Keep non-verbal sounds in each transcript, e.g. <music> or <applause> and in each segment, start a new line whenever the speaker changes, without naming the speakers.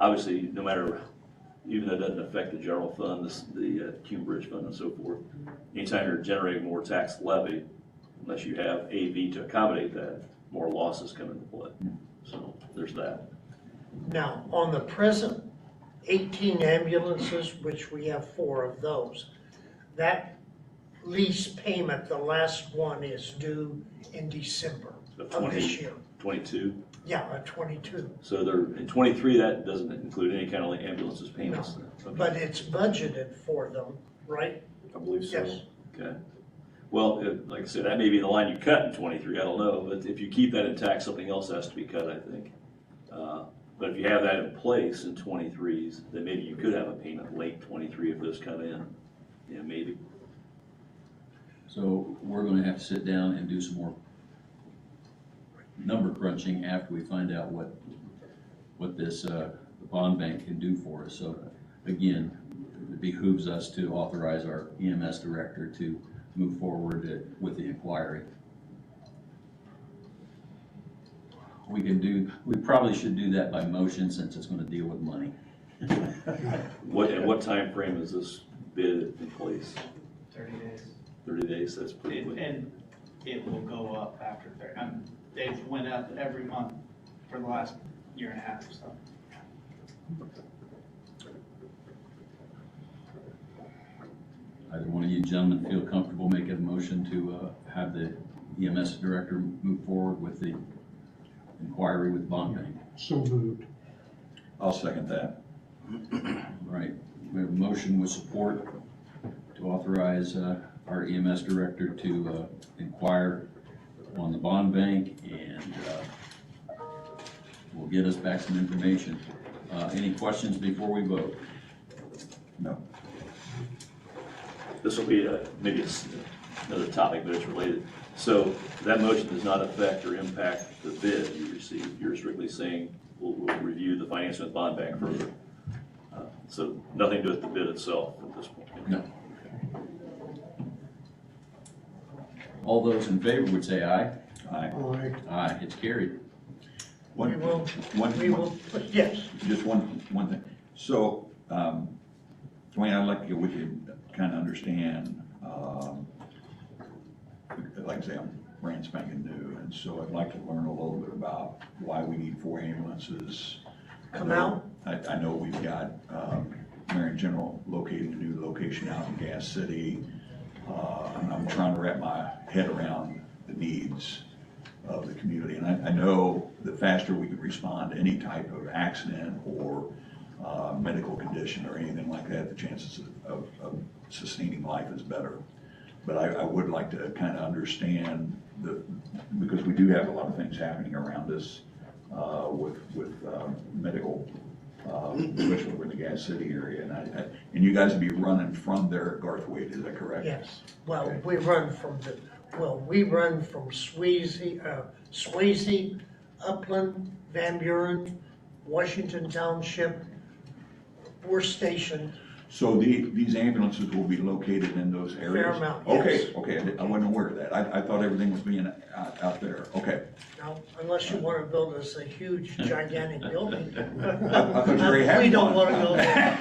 obviously, no matter, even though it doesn't affect the general fund, this, the uh, Cume Bridge Fund and so forth, anytime you're generating more tax levy, unless you have AV to accommodate that, more losses come into play. So there's that.
Now, on the present eighteen ambulances, which we have four of those, that lease payment, the last one is due in December
Of
of this
20.
year.
Twenty-two,
Yeah, uh, twenty-two,
so there, in twenty-three, that doesn't include any kind of like ambulances payments. then. Okay.
but it's budgeted for them, right?
I believe so.
Yes.
Okay. Well, it- like I said, that may be the line you cut in twenty-three, I don't know, but if you keep that intact, something else has to be cut, I think. Uh, But if you have that in place in twenty-threes, then maybe you could have a payment late twenty-three if those come in. Yeah, maybe.
So we're gonna have to sit down and do some more number crunching after we find out what, what this, uh, the bond bank can do for us. So again, it behooves us to authorize our EMS director to move forward with the inquiry. We can do, we probably should do that by motion since it's gonna deal with money.
What, and what time frame is this bid in place?
Thirty days.
Thirty days, that's pretty
It-
quick.
And it will go up after thirty, um, they've went up every month for the last year and a half, so.
Either one of you gentlemen feel comfortable making a motion to uh, have the EMS director move forward with the inquiry with bond bank?
So moved.
I'll second that. All right, we have a motion with support to authorize uh, our EMS director to uh, inquire on the bond bank and uh, will get us back some information. Uh, Any questions before we vote?
This will be uh, maybe it's another topic, but it's related. So that motion does not affect or impact the bid you received. You're strictly saying we'll, we'll review the financing with bond bank further. Uh, So nothing to do with the bid itself at this point.
No. All those in favor would say aye. Aye.
Aye.
Aye, it's carried.
We
One,
will, we
one,
will, yes,
just one, one thing. So, um, Dwayne, I'd like to get with you, kind of understand, um, like I say, I'm brand spanking new, and so I'd like to learn a little bit about why we need four ambulances. I
Come
know-
out.
I, I know we've got, um, Marion General locating a new location out in Gas City. Uh, I'm, I'm trying to wrap my head around the needs of the community. And I, I know the faster we can respond to any type of accident or uh, medical condition or anything like that, the chances of- of, of sustaining life is better. But I, I would like to kind of understand the, because we do have a lot of things happening around us uh, with, with um, medical, um, especially over in the Gas City area. And I, I- and you guys would be running from there at Garth Wade, is that correct?
yes. Well, we run from the, well, we run from Swayze, uh, Swayze, Upland, Van Buren, Washington Township. We're stationed
So the, these ambulances will be located in those areas?
Fairmount, yes.
Okay, okay, I di- I wasn't aware of that. I, I thought everything was being out, out there, okay.
Now, unless you want to build us a huge gigantic building. Uh,
I I thought you already had
We don't
one.
want to go there.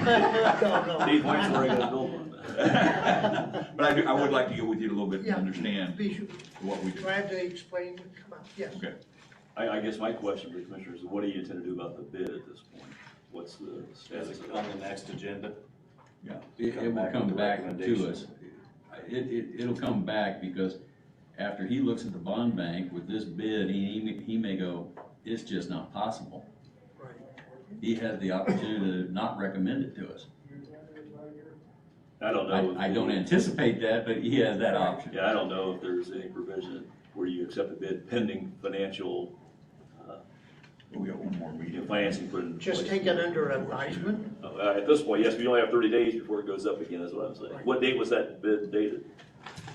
No, no.
Dave, when's the regular bill one?
<laughs> But I do, I would like to get with you a little bit and
Yeah.
understand
Be
what we do.
glad to explain, come on, yes.
Okay.
<laughs> I, I guess my question for the commissioners, is what do you intend to do about the bid at this point? What's the status of
on
it?
the next agenda.
It, it will come back to us. It, it, it'll come back because after he looks at the bond bank with this bid, he, he may- he may go, it's just not possible.
Right.
He has the opportunity to not recommend it to us.
I don't know.
I, I don't anticipate that, but he has that option.
Yeah, I don't know if there's any provision where you accept a bid pending financial,
We got one more
you know,
meeting.
financing put in place.
Just take it under advisement.
Uh, At this point, yes, we only have thirty days before it goes up again, is what I'm saying. What date was that bid dated?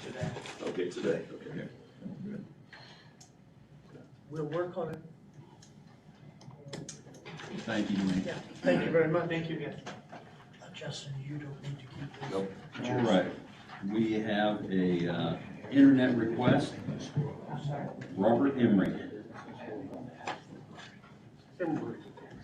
Today.
Okay, today, okay.
We'll work on it.
Thank you, Dwayne.
Yeah, thank you very much.
Thank you again.
Justin, you don't need to keep this.
Nope.
All right, we have a, uh, internet request. Robert Emery.
Emery.